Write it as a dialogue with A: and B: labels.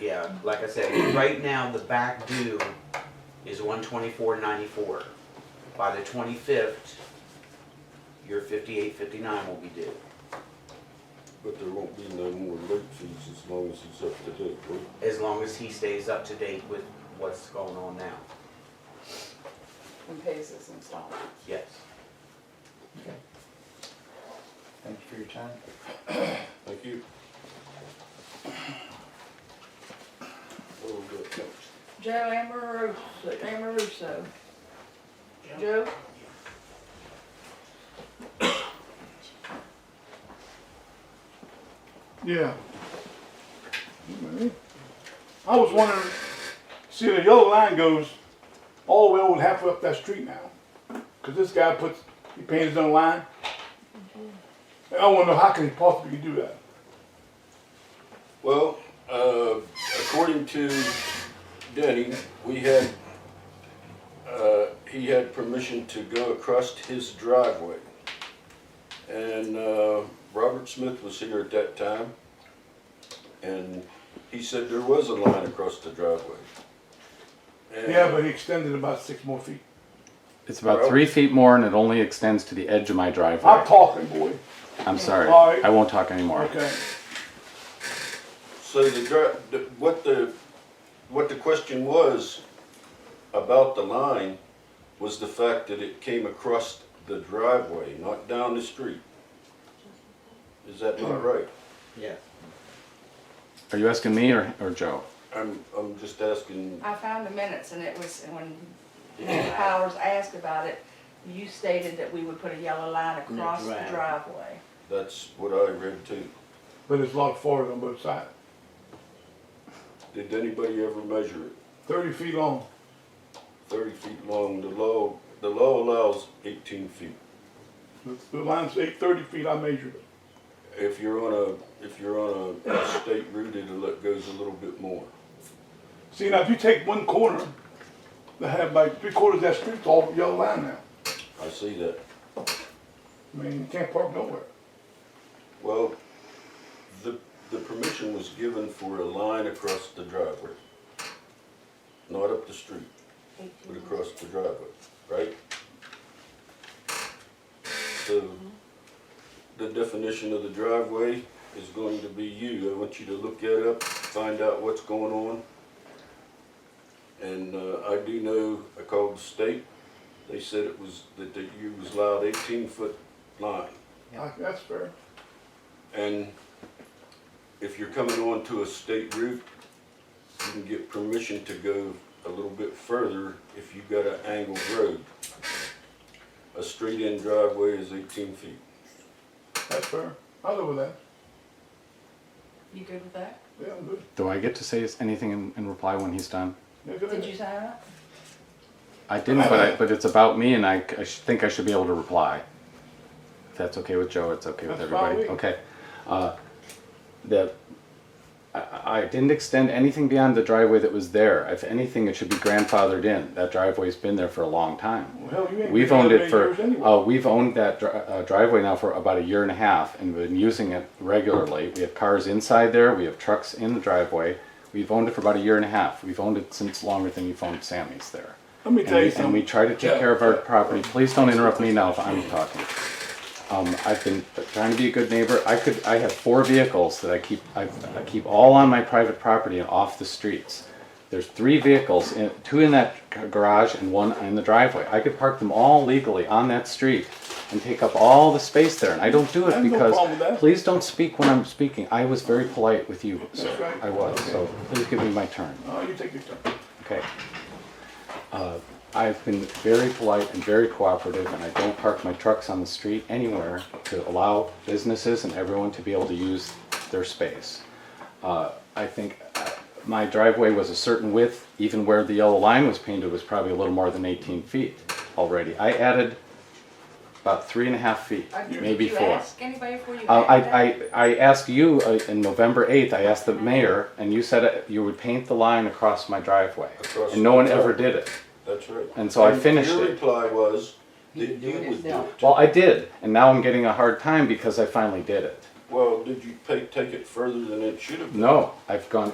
A: yeah, like I said, right now, the back due is one twenty-four ninety-four. By the twenty-fifth, your fifty-eight fifty-nine will be due.
B: But there won't be no more late fees as long as it's up to date, right?
A: as long as he stays up to date with what's going on now.
C: and pays his installment.
A: Yes.
D: Thank you for your time.
B: Thank you. Oh, good, thanks.
E: Joe Amoroso, Amoroso. Joe?
F: Yeah. I was wondering, see the yellow line goes all the way over halfway up that street now. Cause this guy puts, he paints his own line. And I wanna know how can he possibly do that?
B: Well, uh, according to Denny, we had, uh, he had permission to go across his driveway. And uh, Robert Smith was here at that time, and he said there was a line across the driveway. And-
F: Yeah, but he extended about six more feet.
G: It's about
B: Well-
G: three feet more, and it only extends to the edge of my
F: I'm
G: driveway.
F: talking, boy.
G: I'm sorry.
F: All right.
G: I won't talk anymore.
F: Okay.
B: So the, dri- the, what the, what the question was about the line was the fact that it came across the driveway, not down the street. Is that not right?
A: Yes.
G: Are you asking me or, or Joe?
B: I'm, I'm just asking,
C: I found the minutes and it was, when Powers asked about it, you stated that we would put a yellow line across the
A: Right.
C: driveway.
B: that's what I read too.
F: But it's a lot farther on both sides.
B: Did anybody ever measure it?
F: Thirty feet long.
B: Thirty feet long, the law, the law allows eighteen feet.
F: The- The line's eight, thirty feet, I measured it.
B: If you're on a, if you're on a state route, it'll- it goes a little bit more.
F: See, now if you take one corner, they have like three quarters of that street's all yellow line now.
B: I see that.
F: I mean, you can't park nowhere.
B: Well, the, the permission was given for a line across the driveway. Not up the street, but across the driveway, right? So, the definition of the driveway is going to be you. I want you to look that up, find out what's going on. And, uh, I do know, I called the state, they said it was, that that you was allowed eighteen foot line.
F: I- That's fair.
B: And if you're coming onto a state route, you can get permission to go a little bit further if you've got an angled road. A straight-in driveway is eighteen feet.
F: That's fair. I live with that.
C: You good with that?
F: Yeah, I'm good.
G: Do I get to say anything in, in reply when he's done?
F: Yeah, good.
C: Did you sign up?
G: I didn't, but I, but it's about me, and I, I sh- think I should be able to reply. If that's okay with Joe, it's okay with
F: That's
G: everybody.
F: fine.
G: Okay. Uh, the I, I didn't extend anything beyond the driveway that was there. If anything, it should be grandfathered in. That driveway's been there for a long time.
F: Well, hell, you ain't
G: We've
F: been
G: owned
F: there
G: it
F: many
G: for,
F: years anyway.
G: uh, we've owned that dri- uh, driveway now for about a year and a half and been using it regularly. We have cars inside there, we have trucks in the driveway. We've owned it for about a year and a half. We've owned it since longer than you've owned Sammy's there.
F: Let me
G: And
F: tell
G: we-
F: you
G: And we
F: something.
G: try to take care of our property. Please don't interrupt me now if I'm talking. Um, I've been trying to be a good neighbor. I could, I have four vehicles that I keep, I, I keep all on my private property and off the streets. There's three vehicles, in, two in that g- garage and one in the driveway. I could park them all legally on that street and take up all the space there, and I don't do
F: I
G: it
F: have no
G: because,
F: problem with that.
G: please don't speak when I'm speaking. I was very polite with you, sir.
F: right.
G: I was, so please give me my turn.
F: Oh, you take your turn.
G: Okay. Uh, I've been very polite and very cooperative, and I don't park my trucks on the street anywhere to allow businesses and everyone to be able to use their space. Uh, I think uh, my driveway was a certain width, even where the yellow line was painted was probably a little more than 18 feet already. I added about three and a half feet,
C: Or Uh, did
G: maybe
C: you
G: four.
C: ask anybody before you
G: Uh,
C: added
G: I,
C: that?
G: I, I asked you uh, in November 8th, I asked the mayor, and you said uh, you would paint the line across my driveway.
B: Across
G: And no one
B: the
G: ever
B: driveway.
G: did it.
B: That's right.
G: And so I finished
B: Your
G: it.
B: reply was
D: You
B: that
D: can do
B: you
D: it
B: would do
D: yourself.
B: it.
G: Well, I did, and now I'm getting a hard time because I finally did it.
B: Well, did you take, take it further than it should have been?
G: No, I've gone